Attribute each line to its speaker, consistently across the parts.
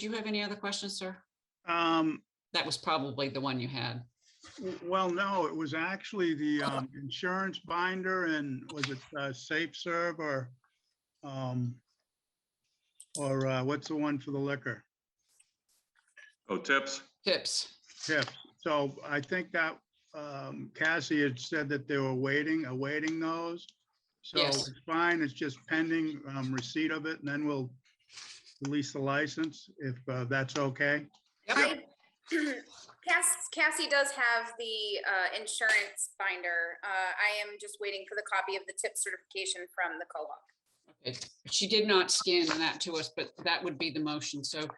Speaker 1: Do you have any other questions, sir?
Speaker 2: Um,
Speaker 1: That was probably the one you had.
Speaker 2: w- well, no, it was actually the,
Speaker 1: Oh.
Speaker 2: um, insurance binder and was it, uh, Safe Serve or, um, or, uh, what's the one for the liquor?
Speaker 3: Oh, tips?
Speaker 1: Tips.
Speaker 2: Tiff. So I think that, um, Cassie had said that they were waiting, awaiting those. So
Speaker 1: Yes.
Speaker 2: it's fine. It's just pending, um, receipt of it and then we'll release the license if, uh, that's okay.
Speaker 1: Yep.
Speaker 4: I- Cass- Cassie does have the uh, insurance binder. Uh, I am just waiting for the copy of the tip certification from the co-op.
Speaker 1: Okay. She did not scan that to us, but that would be the motion. So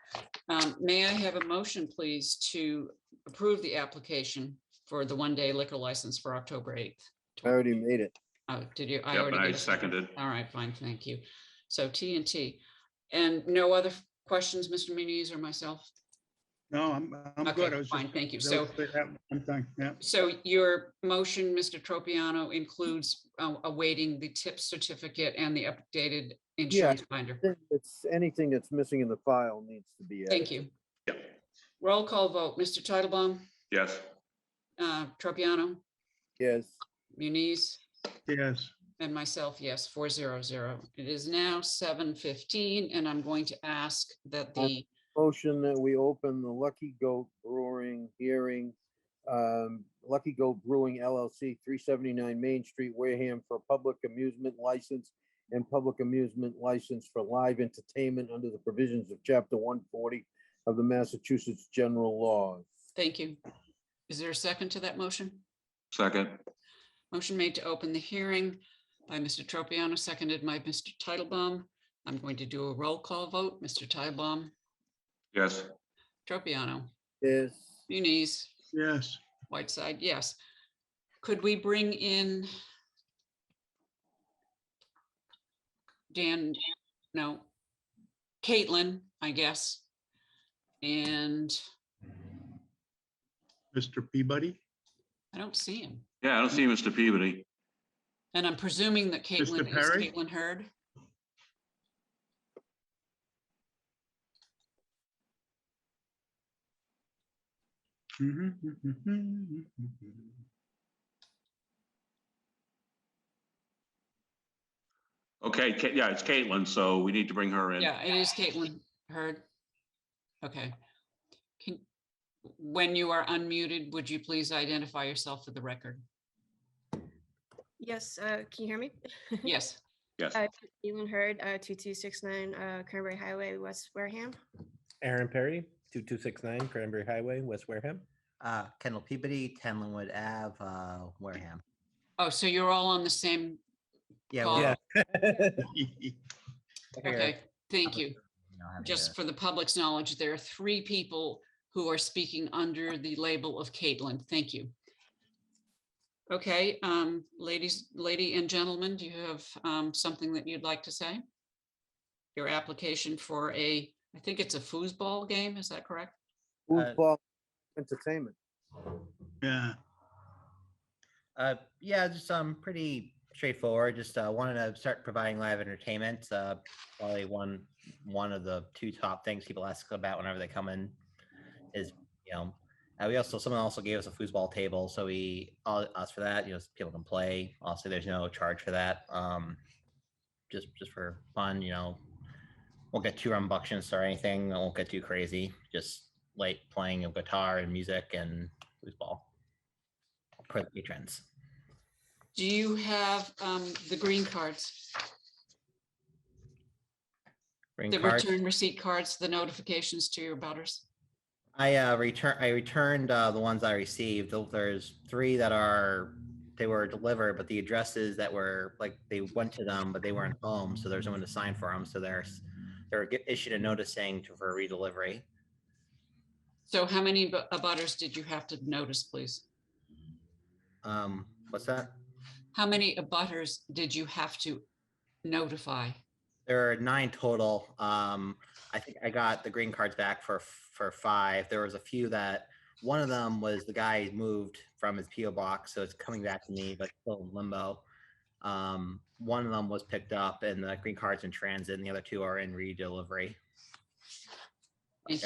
Speaker 1: um, may I have a motion, please, to approve the application for the one-day liquor license for October 8th?
Speaker 5: I already made it.
Speaker 1: Oh, did you?
Speaker 3: Yeah,
Speaker 1: already
Speaker 3: but I
Speaker 1: did.
Speaker 3: seconded.
Speaker 1: All right, fine, thank you. So T and T. And no other questions, Mr. Muniz or myself?
Speaker 2: No, I'm, I'm
Speaker 1: Okay,
Speaker 2: good. I was just-
Speaker 1: Fine, thank you.
Speaker 2: that
Speaker 1: So
Speaker 2: was that One thing, yeah.
Speaker 1: So your motion, Mr. Tropiano, includes uh, awaiting the tip certificate and the updated insurance binder.
Speaker 5: If It's anything that's missing in the file needs to be.
Speaker 1: Thank you.
Speaker 3: Yeah.
Speaker 1: Roll call vote, Mr. Titlebaum,
Speaker 3: Yes,
Speaker 1: uh, Tropiano,
Speaker 5: Yes,
Speaker 1: Muniz,
Speaker 2: Yes.
Speaker 1: and myself, yes, four zero zero. It is now seven fifteen, and I'm going to ask that the,
Speaker 5: motion that we open the Lucky Goat Brewing hearing. um, Lucky Goat Brewing LLC, three seventy-nine Main Street, Wareham, for public amusement license and public amusement license for live entertainment under the provisions of chapter one forty of the Massachusetts General Laws.
Speaker 1: thank you. Is there a second to that motion?
Speaker 3: second.
Speaker 1: Motion made to open the hearing by Mr. Tropiano, seconded by Mr. Titlebaum. I'm going to do a roll call vote. Mr. Titlebaum,
Speaker 3: Yes,
Speaker 1: Tropiano,
Speaker 5: Yes,
Speaker 1: Muniz,
Speaker 2: Yes,
Speaker 1: Whiteside, yes. Could we bring in? Dan, no, Caitlin, I guess. And
Speaker 2: Mr. Peabody,
Speaker 1: I don't see him.
Speaker 3: yeah, I don't see Mr. Peabody.
Speaker 1: And I'm presuming that Caitlin is
Speaker 2: Perry?
Speaker 1: Caitlin Hurd.
Speaker 2: Mm-hmm, Mr.
Speaker 3: Okay, Ca- yeah, it's Caitlin, so we need to bring her in.
Speaker 1: Yeah, it is Caitlin Hurd. Okay. Can, when you are unmuted, would you please identify yourself for the record?
Speaker 6: Yes, uh, can you hear me?
Speaker 1: Yes,
Speaker 3: Yes,
Speaker 6: Uh, Elon Hurd, uh, two two six nine, uh, Cranberry Highway, West Wareham.
Speaker 7: Aaron Perry, 2269 Cranberry Highway, West Wareham.
Speaker 8: Uh, Kendall Peabody, 10 Linwood Ave, uh, Wareham.
Speaker 1: oh, so you're all on the same,
Speaker 8: Yeah.
Speaker 1: Paul,
Speaker 8: we
Speaker 7: Yeah.
Speaker 8: are
Speaker 1: Oh, okay, thank
Speaker 8: public
Speaker 1: you.
Speaker 8: we don't have
Speaker 1: Just
Speaker 8: to-
Speaker 1: for the public's knowledge, there are three people who are speaking under the label of Caitlin. Thank you. Okay, um, ladies, lady and gentlemen, do you have, um, something that you'd like to say? Your application for a, I think it's a foosball game, is that correct?
Speaker 8: Uh,
Speaker 5: foosball entertainment.
Speaker 2: Yeah,
Speaker 8: Uh, yeah, just um, pretty straightforward. Just uh, wanted to start providing live entertainment. Uh, probably one one of the two top things people ask about whenever they come in is you know. Uh, we also someone also gave us a foosball table, so we uh, asked for that. You know, so people can play. Also, there's no charge for that. Um, just just for fun, you know. Won't get too rambunctious or anything. I won't get too crazy. Just like playing of guitar and music and foosball for the patrons.
Speaker 1: Do you have, um, the green cards,
Speaker 8: Green
Speaker 1: the
Speaker 8: card.
Speaker 1: return receipt cards, the notifications to your butters?
Speaker 8: I uh, return. I returned uh, the ones I received. Th- There's three that are they were delivered, but the addresses that were like they went to them, but they weren't home, so there's no one to sign for them. So there's they were get- issued a notice saying to, for redelivery.
Speaker 1: So how many bu- abutters did you have to notice, please?
Speaker 8: Um, what's that?
Speaker 1: How many abutters did you have to notify?
Speaker 8: There are nine total. Um, I think I got the green cards back for for five. There was a few that one of them was the guy moved from his PO box, so it's coming back to me, but still in limbo. Um, one of them was picked up, and the green cards in transit, and the other two are in re-delivery.